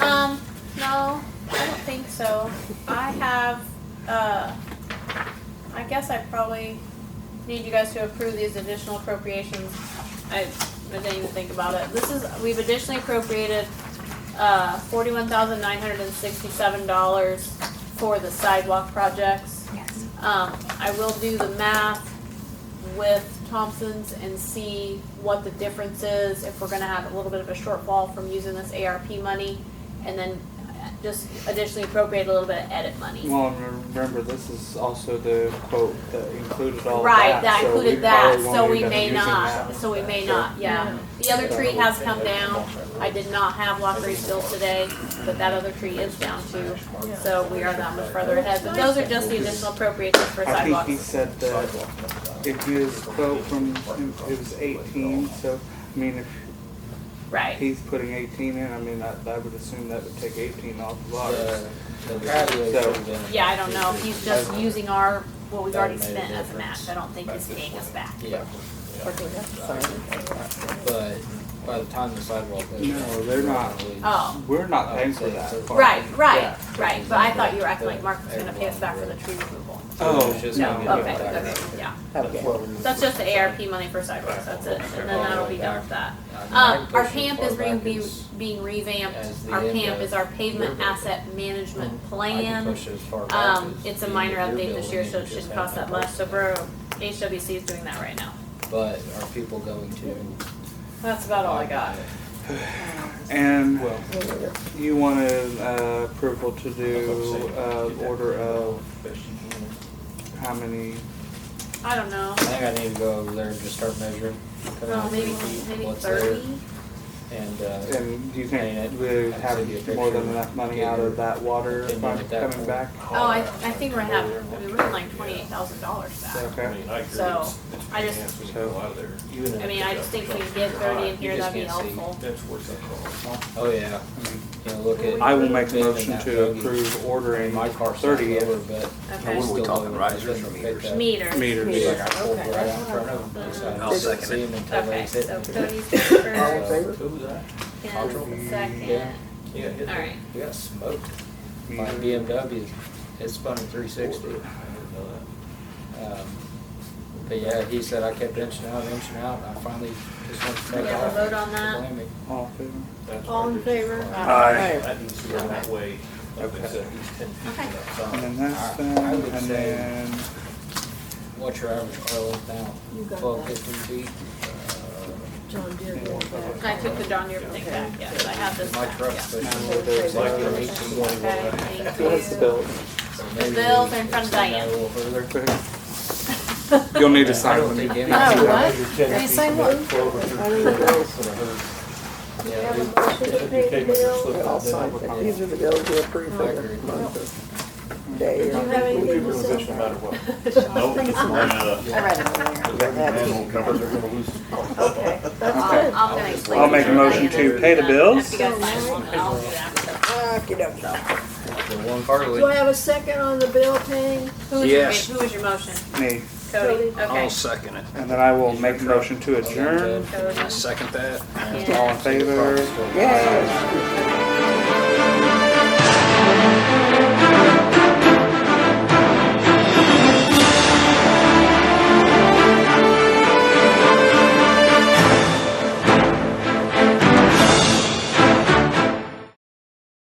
Um, guess uh, I probably need you guys to approve these additional appropriations. I, I didn't even think about it. This is, we've additionally appropriated, uh, forty-one thousand nine hundred and sixty-seven dollars for the sidewalk projects. Yes. Um, I will do the math with Thompson's and see what the difference is, if we're gonna have a little bit of a shortfall from using this ARP money, and then uh, just additionally appropriate a little bit of edit money. Well, and remember, this is also the quote that included all Right, that. that so we included that, probably won't so end we up may using not, that. so we may So- not, yeah. The other tree has come down, I did not have lockery still today, but that other tree is down too, so we are that much further ahead. But those are just the additional appropriations for I think he sidewalks. said that if his quote from it was 18, so I mean, if Right, he's putting 18 in, I mean, I, I would assume that would take 18 off of ours. The the patio. So- yeah, I don't know, if he's just using our, what we've already That made a spent as a difference. match, I don't think he's paying us back. Yeah, for doing that. but by the time the sidewalk. goes No, down, they're not. probably- Oh, We're not paying for Okay, that. so- right, right, Yeah. right, but I thought you were acting like Mark was gonna pay us back for the tree removal. Oh, It's just No, gonna okay, get back okay, around. yeah. That's what we- So that's just the ARP money for sidewalks, that's it, and then that'll be done with that. I mean, I Um, can our push it PAMP far is being, back be- as- being revamped, as the our end PAMP of is our pavement your- asset management I can plan. push it as far back Um, as it's a the minor end of your update this building year, and so it just shouldn't have cost that much, so part. bro, HWC is doing that right now. But are people going to? That's about all I got. And Well, you wanted uh, approval to do uh, order of how many? I don't know, I think I need to go over there and just start measuring. cut well, out Oh, maybe, three feet, maybe what's thirty? there, And, uh, And do you Paint think it. we I'd send you a have more than picture. enough money Get out your of that water opinion fund at that coming point. back? Oh, I, I think we're having, we were in like twenty-eight thousand dollars back. I Okay. mean, I agree. So, It's- it's I just- enhanced. We can go out of there. you and I mean, I just think if we can get thirty in here, You just that'd be can't see. helpful. That's worth that call. Oh, yeah. You know, look at. I will make a Big and motion that to bogey. approve ordering My car's thirty not lower, but. Okay. it's What are we still talking, lower. risers It's or gonna meters? pick up. Meters. It's meters. like I pulled right out in front of them. so I I'll couldn't second see it. 'em until they Okay, hit so me. Cody's first, So, Ken's second, Yeah. Yeah, hit that. alright. We got smoked by Meters. BMW. It spun at three sixty. Um, I didn't know that. But yeah, he said I kept inching out, inching out, and I finally just went to We take have a off. vote on that? Blame me. All in favor? That's All in perfect. favor? Aye. That needs to go that way. Like I said, he's ten feet Okay. up. So, And then that's Uh, I- them, I would and say- then What's your average oil is now? Twelve fifty feet? John Deere won't back. I took the John Deere thing back, yeah, but I have this Uh, My back, truck's yeah. pushing Now it's there's, like uh, from eighteen twenty-one. Okay, thank you. what's the bill? So maybe bills we are in front of extend that Diane. A little further. You'll need Yeah, to sign I don't when you think get any- back. Oh, what? Can you sign one? We Yeah, have a we- motion to pay the bill. I'll sign it. These are the bills we approve for the month or day. Do you or- have anything to say? No matter what. I think so. Nope. I read it earlier. Okay, that's I'll, good. I'll gonna explain. I'll make a to motion Diane to and pay the then If bills. you guys sign one, then I'll do that. Okey-dokey. The one Do I Harley. have a second on the bill paying? Who was your, Yes. who was your motion? Me. Cody, Cody. okay. I'll second it. And then I will make a motion to adjourn. Cody. Second that. All in favor? Yay. Yeah.